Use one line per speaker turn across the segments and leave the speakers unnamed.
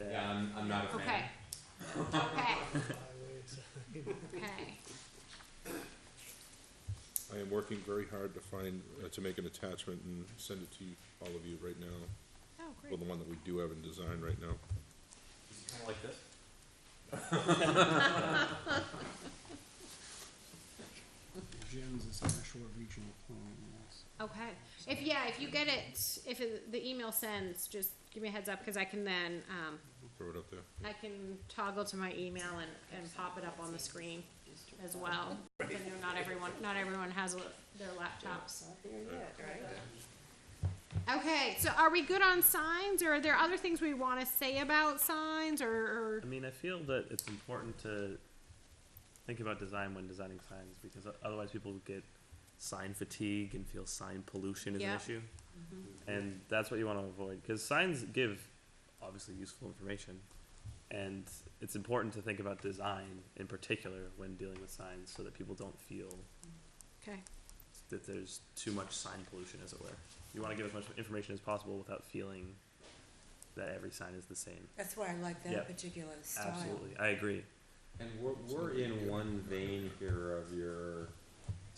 Yeah, I'm, I'm not a fan.
Okay. Okay,
highways.
okay.
I am working very hard to find, uh, to make an attachment and send it to you, all of you right now,
Oh,
well,
great.
the one that we do have in design right now.
Is it kinda like this?
Jim's is Nashua Regional Plan, yes.
Okay. If, yeah, if you get it, if it- the email sends, just give me a heads up, cause I can then, um,
Throw it up there.
I can toggle to my email and, and pop it up on the screen as well. I know not everyone, not everyone has a- their laptops. Okay, so are we good on signs, or are there other things we wanna say about signs, or, or,
I mean, I feel that it's important to think about design when designing signs because o- otherwise people get sign fatigue and feel sign pollution is
Yeah.
an issue. And that's what you want to avoid because signs give obviously useful information. And it's important to think about design in particular when dealing with signs so that people don't feel
okay,
that there's too much sign pollution, as it were. You want to give as much information as possible without feeling that every sign is the same.
That's why I like
Yeah.
that particular style.
Absolutely. I agree.
And we're, we're in one vein here of your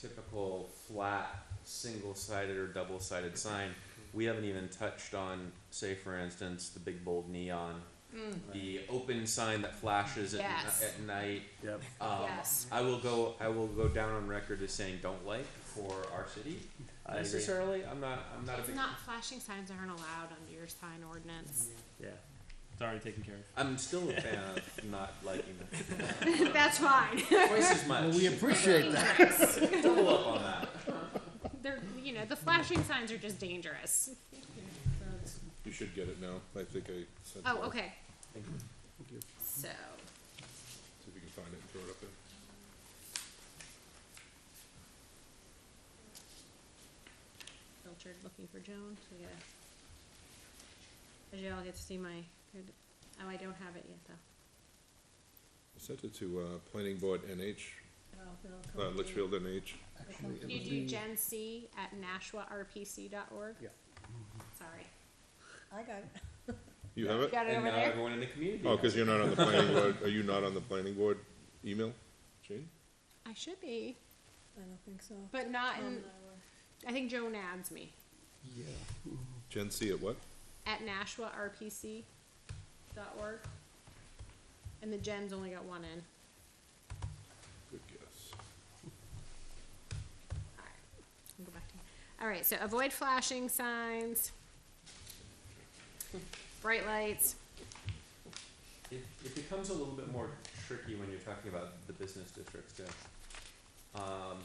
typical flat, single-sided or double-sided sign. We haven't even touched on, say, for instance, the big bold neon,
Mm.
the open sign that flashes at, ni-
Yes.
at night.
Yep.
Um,
Yes.
I will go. I will go down on record as saying don't like for our city
I agree.
necessarily. I'm not. I'm not a
it's
big.
not, flashing signs aren't allowed under your sign ordinance.
Yeah. It's already taken care of.
I'm still a fan of not liking them
That's fine.
twice as much.
Well, we appreciate that.
Double up on that.
They're, you know, the flashing signs are just dangerous.
You should get it now, I think I sent it.
Oh, okay.
Thank you.
So,
See if you can find it and throw it up there.
filtered looking for Joan. So yeah. As y'all get to see my good. Oh, I don't have it yet though.
I Sent it to, uh, Planning Board NH, uh,
Oh,
Litchfield NH.
Actually, it
You
would
do
be-
Gen C at NashuaRPC.org.
Yeah.
Sorry.
I got it.
You have it?
Got it
And
over
uh,
now
there.
everyone in the community.
Oh,
knows.
cause you're not on the planning board, are you not on the planning board email, Jane?
I should be,
I don't think so.
but um, not in. I think Joan adds me
Yeah.
Gen C at what?
at NashuaRPC.org, and the Gen's only got one in.
Good guess.
Alright, I'll go back to you. All right, so avoid flashing signs, bright lights.
It, it becomes a little bit more tricky when you're talking about the business districts too. Um,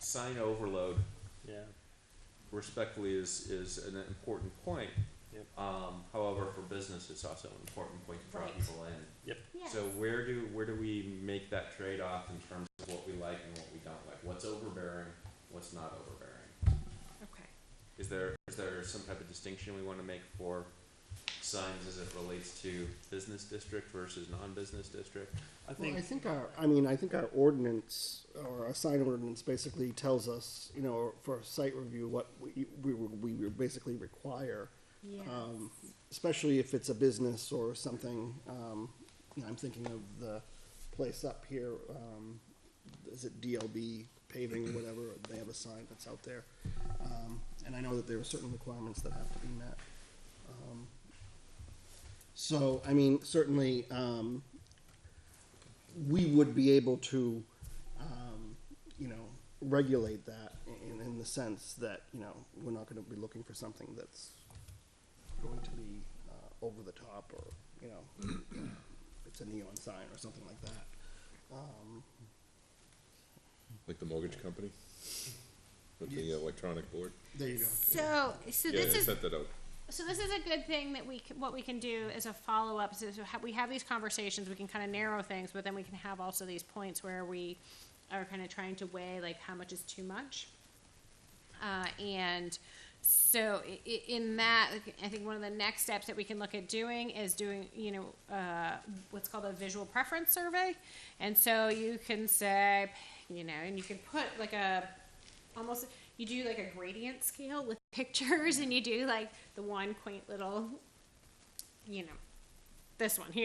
sign overload
Yeah.
respectfully is, is an important point.
Yep.
Um, however, for business, it's also an important point to draw
Right.
people in.
Yeah.
So where do, where do we make that trade-off in terms of what we like and what we don't like? What's overbearing, what's not overbearing?
Okay,
Is there, is there some type of distinction we wanna make for signs as it relates to business district versus non-business district?
I
Well,
think
I think our, I mean, I think our ordinance, or our sign ordinance basically tells us, you know, for site review, what we, we, were- we were basically require.
yeah.
um, especially if it's a business or something. Um, you know, I'm thinking of the place up here. Um, is it DLB paving or whatever? They have a sign that's out there, um, and I know that there are certain requirements that have to be met. Um, so, I mean, certainly, um, we would be able to, um, you know, regulate that in, in the sense that you know we're not going to be looking for something that's going to be uh, over the top or you know it's a neon sign or something like that um,
Like the mortgage company? With the electronic board?
there you go
So, so
Yeah,
this
they
is,
sent that out.
so this is a good thing that we, c- what we can do as a follow-up, so so ha- we have these conversations, we can kind of narrow things, but then we can have also these points where we are kind of trying to weigh like how much is too much. Uh, and so i- i- in that, like, I think one of the next steps that we can look at doing is doing, you know, uh, what's called a visual preference survey. And so you can say, you know, and you can put like a, almost, you do like a gradient scale with pictures and you do like the one quaint little, you know, this one here.